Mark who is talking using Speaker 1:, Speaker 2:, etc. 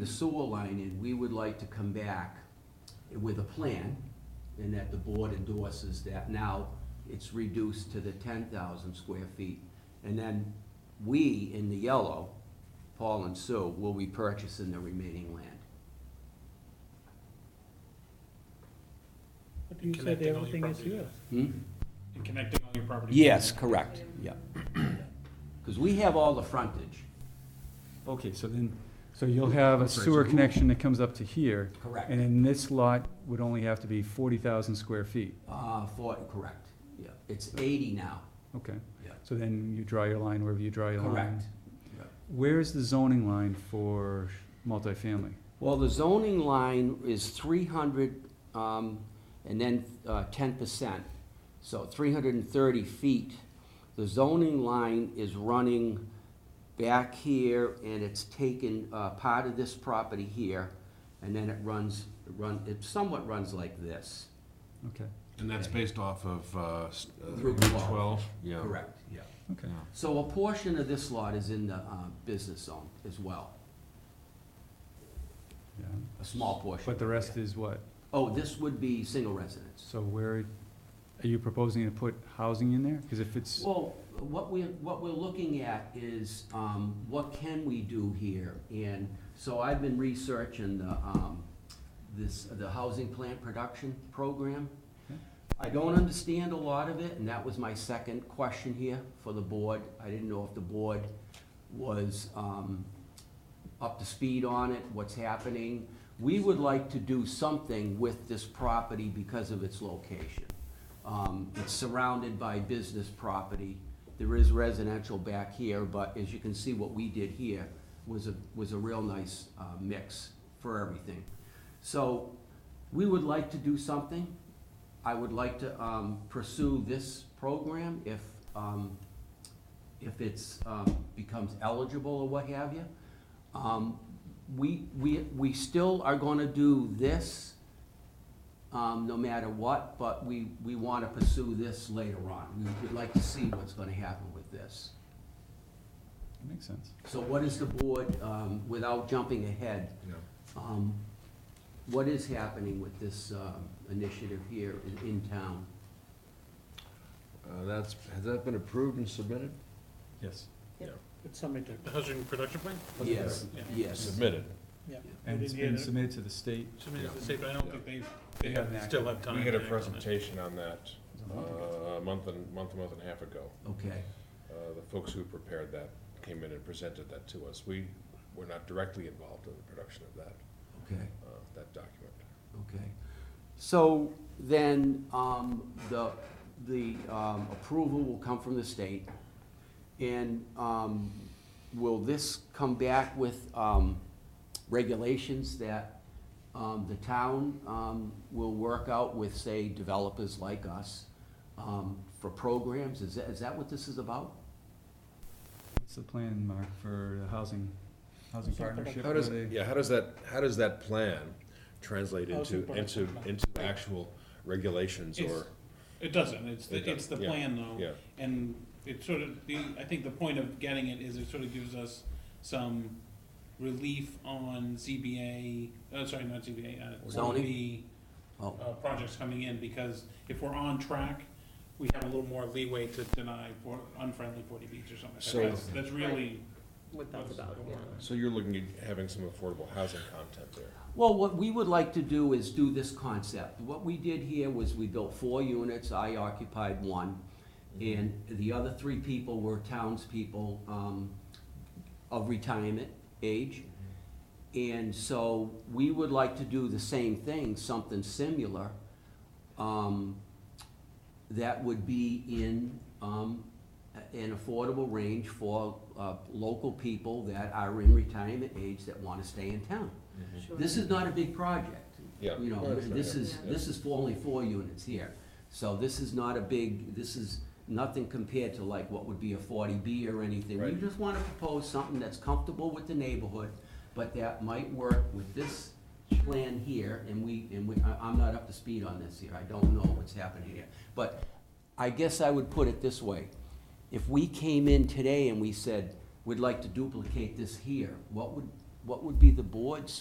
Speaker 1: the sewer line in, we would like to come back with a plan, and that the board endorses that now it's reduced to the ten thousand square feet. And then we, in the yellow, Paul and Sue, will be purchasing the remaining land.
Speaker 2: But you said
Speaker 3: Connecting all your
Speaker 2: everything is
Speaker 3: properties.
Speaker 2: yours.
Speaker 1: Hmm?
Speaker 3: And connecting all your properties.
Speaker 1: Yes, correct, yeah. Because we have all the frontage.
Speaker 4: Okay, so then, so you'll have a sewer connection that comes up to here,
Speaker 1: Correct.
Speaker 4: and then this lot would only have to be forty thousand square feet,
Speaker 1: Uh, for, correct, yeah. It's eighty now,
Speaker 4: okay?
Speaker 1: Yeah.
Speaker 4: So then you draw your line wherever you draw your line.
Speaker 1: correct.
Speaker 4: Where is the zoning line for multifamily?
Speaker 1: Well, the zoning line is three hundred, um, and then, uh, ten percent, so three hundred and thirty feet. The zoning line is running back here, and it's taken, uh, part of this property here, and then it runs, run, it somewhat runs like this.
Speaker 4: Okay,
Speaker 5: And that's based off of uh, s- uh,
Speaker 1: Route
Speaker 5: Route
Speaker 1: 12.
Speaker 5: 12? Yeah.
Speaker 1: Correct, yeah.
Speaker 4: okay.
Speaker 5: Yeah.
Speaker 1: So a portion of this lot is in the, uh, business zone as well,
Speaker 4: Yeah.
Speaker 1: a small portion.
Speaker 4: But the rest is what?
Speaker 1: Oh, this would be single residence.
Speaker 4: So where, are you proposing to put housing in there? Because if it's,
Speaker 1: Well, what we, what we're looking at is, um, what can we do here? And so I've been researching the, um, this, the housing plan production program.
Speaker 4: Okay.
Speaker 1: I don't understand a lot of it, and that was my second question here for the board. I didn't know if the board was, um, up to speed on it, what's happening. We would like to do something with this property because of its location. Um, It's surrounded by business property. There is residential back here, but as you can see, what we did here was a, was a real nice uh, mix for everything. So we would like to do something. I would like to um, pursue this program if, um, if it's, um, becomes eligible or what have you. Um, We, we, we still are gonna do this, um, no matter what, but we, we wanna pursue this later on. We would like to see what's gonna happen with this.
Speaker 4: that makes sense.
Speaker 1: So what is the board, um, without jumping ahead,
Speaker 5: Yeah.
Speaker 1: um, what is happening with this, um, initiative here in, in town?
Speaker 5: Uh, That's, has that been approved and submitted?
Speaker 4: Yes.
Speaker 2: It's submitted,
Speaker 3: The housing production plan?
Speaker 1: Yes, yes.
Speaker 5: Submitted.
Speaker 2: yeah. I
Speaker 4: And it's
Speaker 2: didn't hear
Speaker 4: been
Speaker 2: that.
Speaker 4: submitted to the state.
Speaker 3: Submitted to state, but I don't think they,
Speaker 4: They
Speaker 3: they
Speaker 4: haven't acted.
Speaker 3: still have time.
Speaker 6: We had a
Speaker 3: to act on it.
Speaker 6: presentation on that
Speaker 4: It's a month ago.
Speaker 6: uh, a month and, month, month and a half ago.
Speaker 1: Okay,
Speaker 6: Uh, The folks who prepared that came in and presented that to us. We were not directly involved in the production of that,
Speaker 1: okay.
Speaker 6: uh, that document.
Speaker 1: Okay. So then, um, the, the, um, approval will come from the state. And, um, will this come back with, um, regulations that, um, the town, um, will work out with, say, developers like us, um, for programs? Is that, is that what this is about?
Speaker 4: What's the plan, Mark, for the housing, housing
Speaker 2: Housing
Speaker 4: partnership?
Speaker 6: How does,
Speaker 4: Are they-
Speaker 6: yeah, how does that, how does that plan translate
Speaker 2: Housing
Speaker 6: into,
Speaker 2: production
Speaker 6: into,
Speaker 2: plan.
Speaker 6: into actual regulations or?
Speaker 3: It's- It doesn't, it's,
Speaker 6: It
Speaker 3: the- it's the
Speaker 6: doesn't, yeah,
Speaker 3: plan though.
Speaker 6: yeah.
Speaker 3: And it sort of, the, I think the point of getting it is it sort of gives us some relief on ZBA, uh, sorry, not ZBA, uh,
Speaker 1: Zoning?
Speaker 3: ZBA,
Speaker 1: Oh,
Speaker 3: uh, projects coming in, because if we're on track, we have a little more leeway to deny for unfriendly forty Bs or
Speaker 6: So-
Speaker 3: something. That's, that's really
Speaker 7: what that's
Speaker 3: what's going
Speaker 7: about, yeah.
Speaker 3: on.
Speaker 6: So you're looking at having some affordable housing content there.
Speaker 1: Well, what we would like to do is do this concept. What we did here was we built four units, I occupied one, and the other three people were townspeople um, of retirement age. And so we would like to do the same thing, something similar, um, that would be in um, a- an affordable range for uh, local people that are in retirement age that want to stay in town.
Speaker 7: Sure.
Speaker 1: This is not a big project.
Speaker 6: Yeah.
Speaker 1: You know,
Speaker 6: No, it's not,
Speaker 1: this
Speaker 6: yeah.
Speaker 1: is,
Speaker 7: Yeah.
Speaker 1: this is for only four units here. So this is not a big, this is nothing compared to like what would be a forty B or anything. We
Speaker 6: Right.
Speaker 1: just wanna propose something that's comfortable with the neighborhood, but that might work with this plan here, and we, and we, I, I'm not up to speed on this here, I don't know what's happening here. But I guess I would put it this way, if we came in today and we said, we'd like to duplicate this here, what would, what what would be the board's